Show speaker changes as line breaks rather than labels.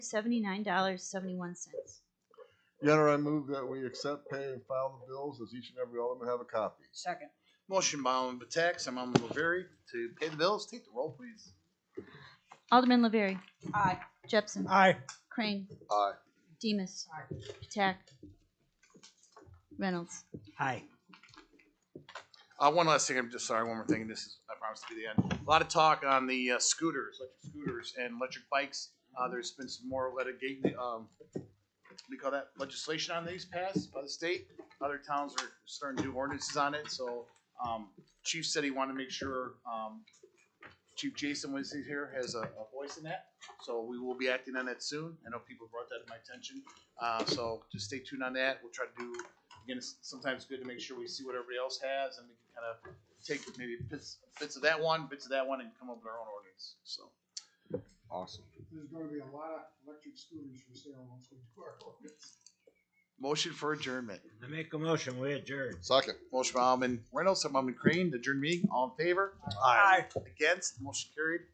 seventy-nine dollars, seventy-one cents.
Your Honor, I move that we accept, pay, and file the bills as each and every element have a copy.
Second.
Motion by Alderman Batak, second by Alderman Laverie to pay the bills. Take the roll, please.
Alderman Laverie.
Aye.
Jepson.
Aye.
Crane.
Aye.
Demus.
Aye.
Patak. Reynolds.
Aye.
Uh, one last thing, I'm just sorry, one more thing, and this is, I promise to be the end. A lot of talk on the uh, scooters, electric scooters and electric bikes. Uh, there's been some more litigate, um, what do you call that, legislation on these passed by the state. Other towns are starting to do ordinances on it, so, um, Chief said he wanted to make sure, um, Chief Jason was here, has a, a voice in that, so we will be acting on that soon. I know people brought that to my attention, uh, so just stay tuned on that. We'll try to do again, it's sometimes good to make sure we see what everybody else has and we can kind of take maybe bits, bits of that one, bits of that one, and come up with our own ordinance. So,
Awesome.
There's gonna be a lot of electric scooters for sale once we do our ordinance.
motion for adjournment.
I make a motion, we adjourn.
Second.
Motion by Alderman Reynolds, second by Alderman Crane, to adjourn meeting. All in favor?
Aye.
Against? Motion carried.